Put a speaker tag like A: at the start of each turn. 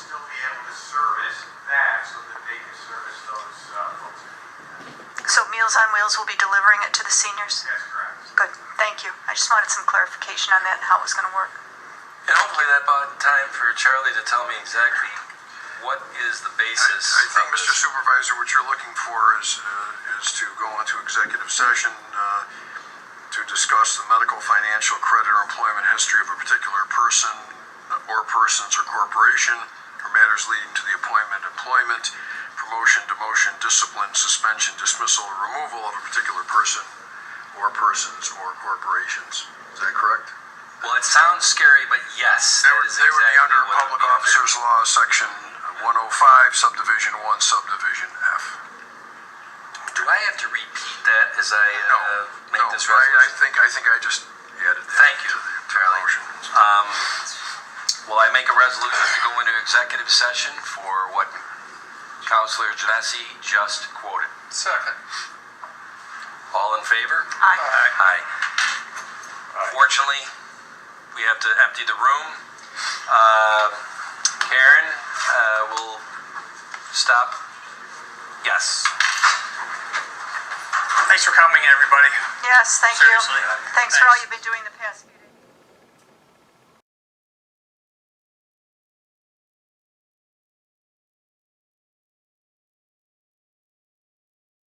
A: Meals on Wheels will be delivering it to the seniors?
B: That's correct.
A: Good, thank you. I just wanted some clarification on that and how it was gonna work.
C: And hopefully that bought time for Charlie to tell me exactly what is the
D: I
C: basis.
D: I think,
C: of this.
D: Mr. Supervisor, what you're looking for is, uh, is to go into executive session uh, to discuss the medical, financial, credit, or employment history of a particular person uh, or persons or corporation, or matters leading to the appointment, employment, promotion, demotion, discipline, suspension, dismissal, or removal of a particular person or persons or corporations. Is that correct?
C: Well, it sounds scary, but yes,
D: They
C: that
D: would,
C: is
D: they would be
C: exactly
D: under
C: what it would
D: Public
C: be under.
D: Officers Law, Section 105, Subdivision 1, Subdivision F.
C: Do I have to repeat that as I
D: No,
C: uh,
D: no,
C: make this
D: I- I
C: resolution?
D: think, I think I just added that.
C: Thank you,
D: to the
C: Charlie.
D: motion.
C: Um, will I make a resolution to go into executive session for what Counselor Genesi just quoted?
B: Second.
C: All in favor?
A: Aye.
C: Aye. Fortunately, we have to empty the room. Uh, Karen uh, will stop. Yes.
B: Thanks for coming, everybody.
A: Yes, thank you.
B: Seriously, uh,
A: Thanks for all
B: thanks.
A: you've been doing the past few